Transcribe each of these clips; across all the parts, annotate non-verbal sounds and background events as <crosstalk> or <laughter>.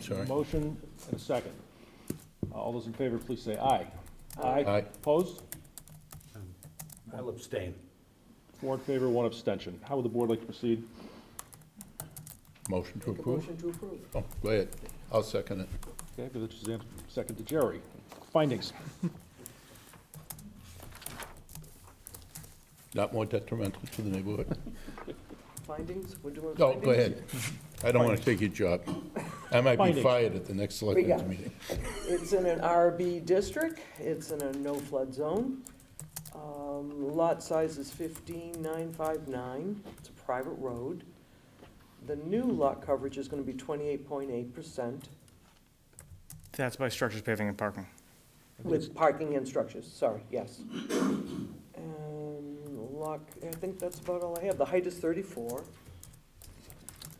sorry. Motion and a second. Uh, All those in favor, please say aye. Aye. Opposed? I'll abstain. Four in favor, one abstention. How would the board like to proceed? Motion to Make a approve? motion to approve. Oh, go ahead. I'll second it. Okay, Village Suzanne, second to Jerry. Findings? Not more detrimental to the <laughs> neighborhood. Findings, we're doing No, findings? go ahead. I don't want to take your job. I might be Findings. fired at the next selectmen's got- meeting. It's in an RB district, it's in a no flood zone. Um, Lot size is fifteen nine five nine, it's a private road. The new lot coverage is gonna be twenty-eight point eight percent That's by structures, paving, and parking. with parking and structures, sorry, yes. And lot, I think that's about all I have, the height is thirty-four.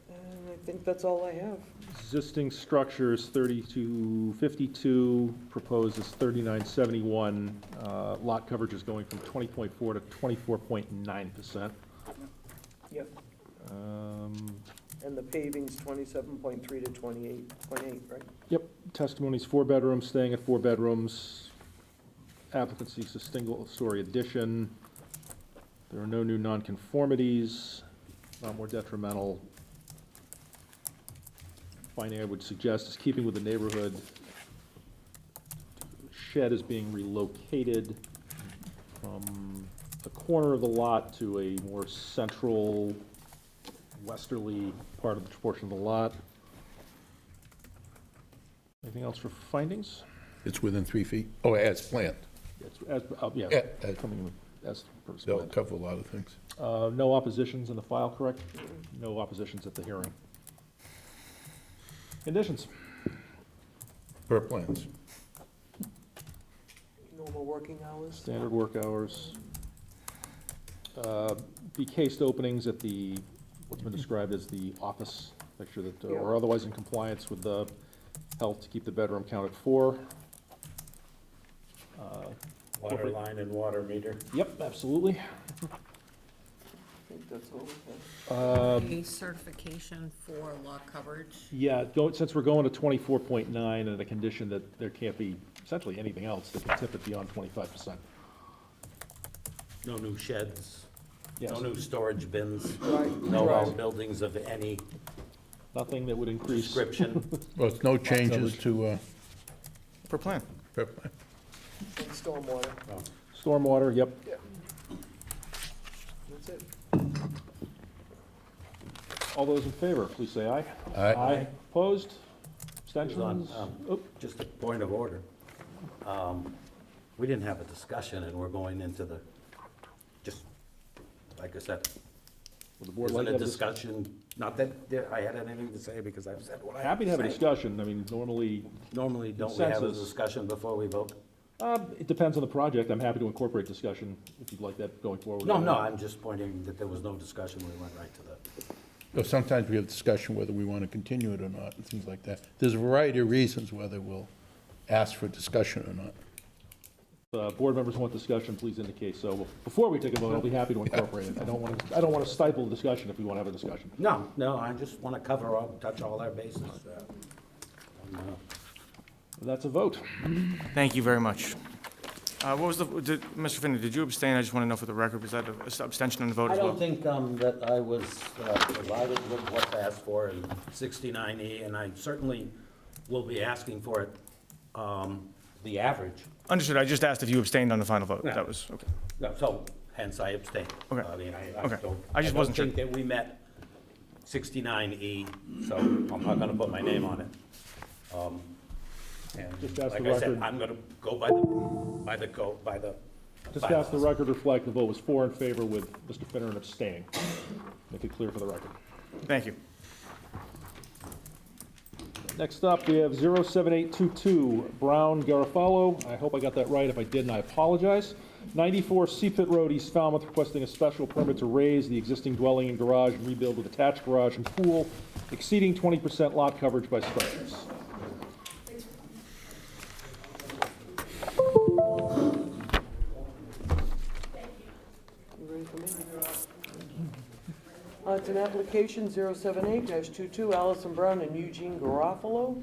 And I think that's all I have. Existing structures, 3252, proposed is 3971. Uh, Lot coverage is going from 20.4 to 24.9%. Yep. Um, And the paving's twenty-seven point three to twenty-eight point eight, right? Yep, testimony's four bedrooms, staying at four bedrooms. Applicant seeks a single-story addition. There are no new nonconformities, not more detrimental. Finding I would suggest is keeping with the neighborhood. Shed is being relocated from the corner of the lot to a more central westerly part of the portion of the lot. Anything else for findings? It's within three feet. Oh, as planned. It's, as, uh, yeah, Yeah, uh, coming in as per That'll split. cover a lot of things. Uh, no oppositions in the file, correct? No oppositions at the hearing. Conditions, Per plans. Normal working hours? standard work hours. Uh, Be cased openings at the, what's been described as the office, make sure that, uh, or Yeah. otherwise in compliance with the health to keep the bedroom count at four. Uh, Water line and water meter. Yep, absolutely. I think that's all we Um, A certification for lot coverage. Yeah, go, since we're going to twenty-four point nine and the condition that there can't be essentially anything else that can tip it beyond twenty-five percent. No new sheds. Yes, No new storage bins. have. Right, No right. outbuildings of any nothing that would increase, description. <laughs> Well, it's no changes to, uh, Per plan. per plan. And stormwater, stormwater, yep, that's it. all those in favor, please say aye. Aye. Opposed, on, abstentions, um, Oop, Just a point of order. Um, We didn't have a discussion and we're going into the, just, like I said, would the board like to wasn't a have a discussion? discussion, not that there- I had anything to say because I've said what I have Happy to have a say. discussion, I mean, normally, Normally, don't we have a Consensus. discussion before we vote? um, it depends on the project, I'm happy to incorporate discussion if you'd like that going forward. No, no, I'm just pointing that there was no discussion. We went right to the. So Sometimes we have discussion whether we want to continue it or not, and things like that. There's a variety of reasons whether we'll ask for discussion or not. Uh, board members want discussion, please indicate so. Before we take a vote, I'll be happy to incorporate it, I don't wanna, I don't wanna stifle the discussion if we wanna have a discussion. No, no, I just want to cover all, touch all our bases. uh, and, uh, That's a vote. Thank you very much. Uh, What was the, did- Mr. Finley, did you abstain? I just want to know for the record, was that an abstention on the vote I as well? don't think um, that I was uh, provided with what's asked for in 69E, and I certainly will be asking for it, um, the average. Understood, I just asked if you abstained on the final vote. No. That was, okay. No, So hence I abstain. Okay. I mean, I I Okay. don't, I I just don't wasn't sure. think that we met 69E, so I'm not going to put my name on it. Um, And Just ask the like I said, record. I'm going to go by the, by the, go by the. Just to have the bylaws. record reflect, the vote was four in favor with Mr. Finneran abstaining. Make it clear for the record. Thank you. Next up, we have 07822 Brown Garofalo. I hope I got that right. If I didn't, I apologize. 94 Seapit Road, East Falmouth, requesting a special permit to raise the existing dwelling and garage and rebuild with attached garage and pool exceeding 20% lot coverage by structures. You ready for me? Uh, It's an application 078-22 Allison Brown and Eugene Garofalo